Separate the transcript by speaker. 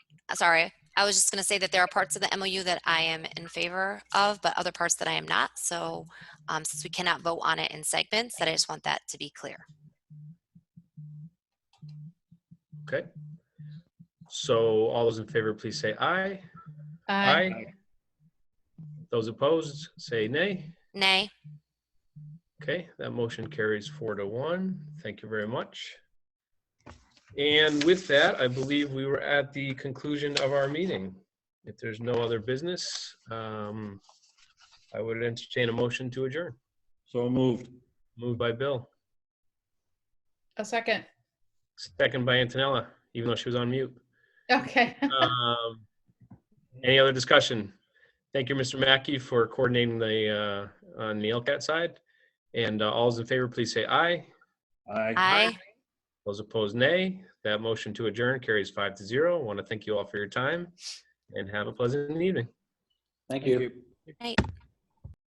Speaker 1: uh, sorry, I was just going to say that there are parts of the MOU that I am in favor of, but other parts that I am not. So um, since we cannot vote on it in segments, that I just want that to be clear.
Speaker 2: Okay. So all those in favor, please say aye.
Speaker 3: Uh,
Speaker 2: Those opposed, say nay.
Speaker 1: Nay.
Speaker 2: Okay, that motion carries four to one. Thank you very much. And with that, I believe we were at the conclusion of our meeting. If there's no other business, um, I would entertain a motion to adjourn.
Speaker 4: So moved.
Speaker 2: Moved by Bill,
Speaker 3: A second.
Speaker 2: second by Antonella, even though she was on mute.
Speaker 3: Okay.
Speaker 2: Um, Any other discussion? Thank you, Mr. Mackey, for coordinating the, uh, on the LCAT side. And uh, all those in favor, please say aye.
Speaker 1: Aye.
Speaker 2: Those opposed, nay. That motion to adjourn carries five to zero. Want to thank you all for your time and have a pleasant evening.
Speaker 4: Thank you.
Speaker 1: Night.